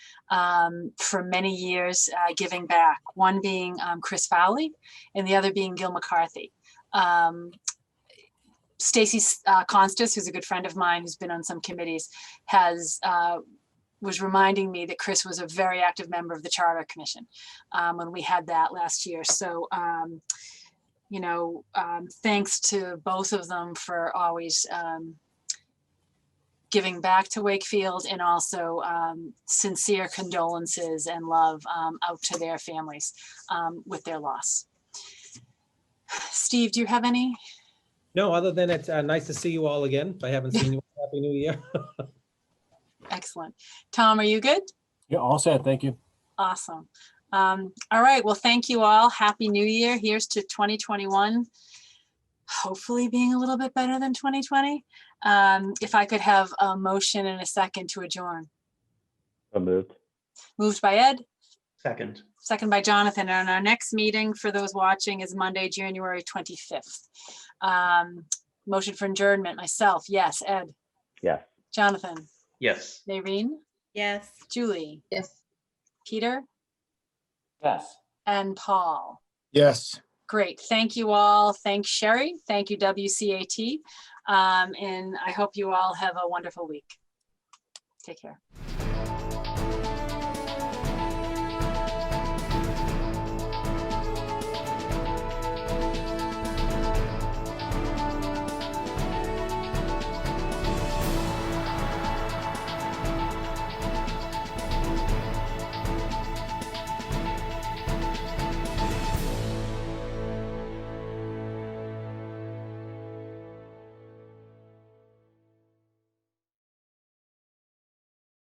um, for many years uh, giving back, one being um, Chris Fowley and the other being Gil McCarthy. Um, Stacy uh, Constas, who's a good friend of mine, who's been on some committees, has uh, was reminding me that Chris was a very active member of the Charter Commission um, when we had that last year. So, um, you know, um, thanks to both of them for always um, giving back to Wakefield and also um, sincere condolences and love um, out to their families um, with their loss. Steve, do you have any? No, other than it's uh, nice to see you all again. I haven't seen you. all. Happy New Year. Excellent. Tom, are you good? Yeah, all set. Thank you. Awesome. Um, all right. Well, thank you all. Happy New Year. Here's to 2021. Hopefully being a little bit better than 2020. Um, if I could have a motion and a second to adjourn. So moved. Moved by Ed, Second. second by Jonathan. And our next meeting for those watching is Monday, January 25th. Um, motion for adjournment, myself. Yes, Ed, Yes. Jonathan, Yes. Maureen, Yes. Julie, Yes. Peter, Yes. and Paul. Yes. Great. Thank you all. Thanks, Sherry. Thank you, WCAT. Um, and I hope you all have a wonderful week. Take care.